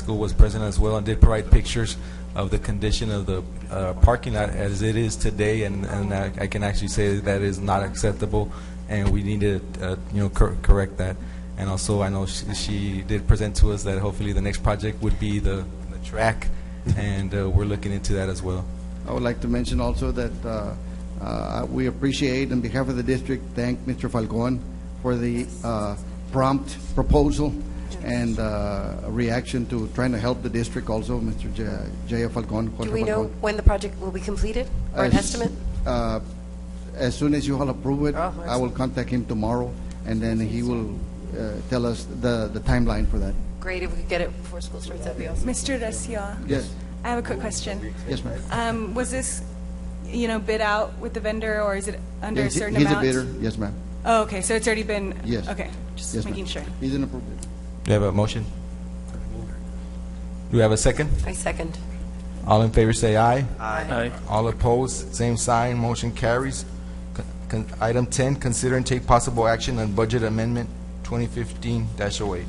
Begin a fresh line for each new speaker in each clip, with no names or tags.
School was present as well and did provide pictures of the condition of the uh, parking lot as it is today, and and I I can actually say that is not acceptable, and we need to, uh, you know, cor- correct that. And also, I know she- she did present to us that hopefully the next project would be the the track, and uh, we're looking into that as well.
I would like to mention also that uh, uh, we appreciate, on behalf of the district, thank Mr. Falcon for the uh, prompt proposal and uh, reaction to trying to help the district also, Mr. J- J. Falcon. Jorge
Do we know
Falcon.
when the project will be completed, or an
As-
estimate?
uh, As soon as you all approve it,
Oh,
I will contact him tomorrow, and then he will uh, tell us the the timeline for that.
Great, if we could get it before school starts, that'd be awesome.
Mr. Recio?
Yes,
I have a quick question.
yes, ma'am.
Um, Was this, you know, bid out with the vendor, or is it under a
He's-
certain
He's a
amount?
bidder, yes, ma'am.
Oh, okay, so it's already been?
Yes.
Okay, just
Yes, ma'am.
making sure.
He's an approved bidder.
Do you have a motion? Do we have a second?
I second.
All in favor say aye.
Aye.
All opposed, same sign, motion carries. Con- con- Item 10, consider and take possible action on budget amendment 2015-08.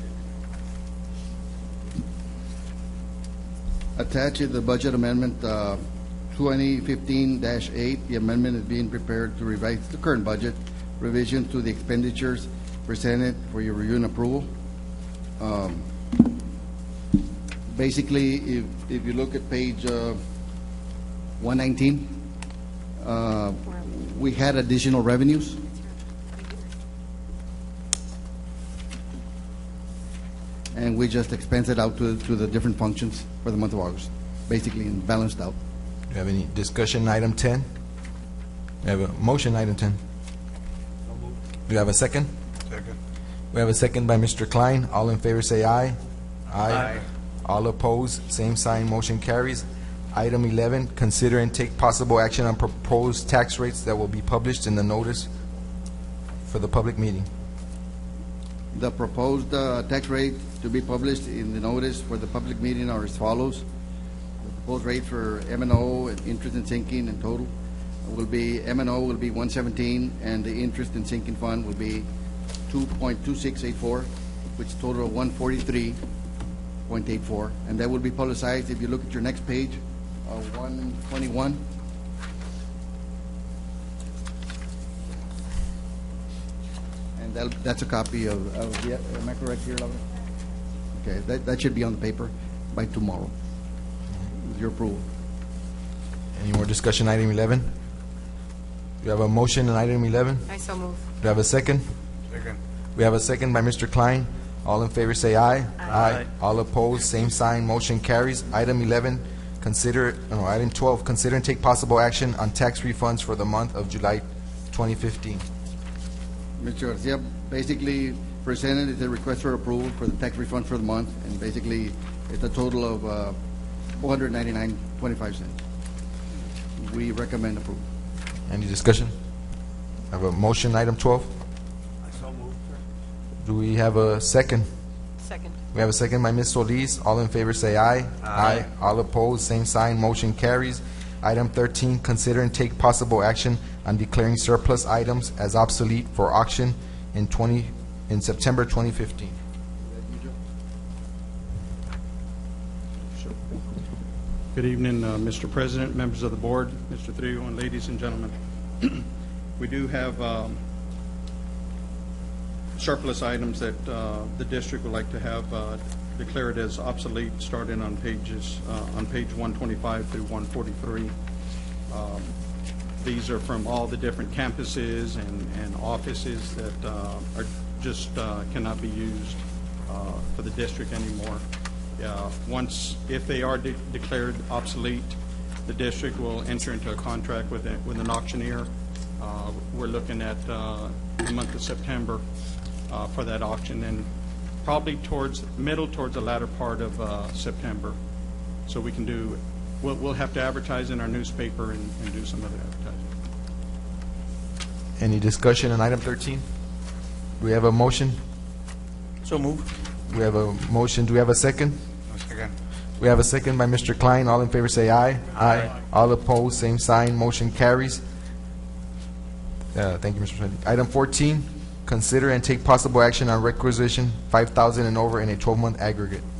Attached is the budget amendment uh, 2015-8. The amendment is being prepared to revise the current budget revision to the expenditures presented for your review and approval. Um, Basically, if, if you look at page uh, 119, uh, we had additional revenues. and we just expense it out to, to the different functions for the month of August, basically and balanced out.
Do you have any discussion, item 10? Do you have a motion, item 10? Do you have a second? Second. We have a second by Mr. Klein. All in favor say aye. Aye. All opposed, same sign, motion carries. Item 11, consider and take possible action on proposed tax rates that will be published in the notice for the public meeting.
The proposed uh, tax rate to be published in the notice for the public meeting are as follows. The proposed rate for M and O and interest and sinking in total will be, M and O will be 117, and the interest and sinking fund will be 2.2684, which total of 143.84, and that will be publicized, if you look at your next page, uh, 121. And that'll- that's a copy of, of the- am I correct here, Laura? Okay, that, that should be on the paper by tomorrow, with your approval.
Any more discussion, item 11? Do you have a motion on item 11?
I so move.
Do you have a second? Second. We have a second by Mr. Klein. All in favor say aye. Aye. All opposed, same sign, motion carries. Item 11, consider, uh, no, item 12, consider and take possible action on tax refunds for the month of July 2015.
Mr. Garcia basically presented is a request for approval for the tax refund for the month, and basically, it's a total of uh, 499.25 cents. We recommend approval.
Any discussion? Have a motion, item 12? I so Do we have a second?
Second.
We have a second by Ms. Solis. All in favor say aye. Aye. All opposed, same sign, motion carries. Item 13, consider and take possible action on declaring surplus items as obsolete for auction in 20, in September 2015.
Good evening, uh, Mr. President, members of the board, Mr. Trillo, and ladies and gentlemen. We do have um, surplus items that uh, the district would like to have uh, declared as obsolete, starting on pages, uh, on page 125 through 143. Um, These are from all the different campuses and and offices that uh, are, just uh, cannot be used uh, for the district anymore. Uh, Once, if they are de- declared obsolete, the district will enter into a contract with a- with an auctioneer uh, We're looking at uh, the month of September uh, for that auction, and probably towards, middle towards the latter part of uh, September. So we can do, we'll, we'll have to advertise in our newspaper and and do some other advertising.
Any discussion on item 13? Do we have a motion?
So move.
We have a motion. Do we have a second? We have a second by Mr. Klein. All in favor say aye. Aye. All opposed, same sign, motion carries. Uh, Thank you, Mr. President. Item 14, consider and take possible action on requisition 5,000 and over in a 12-month aggregate.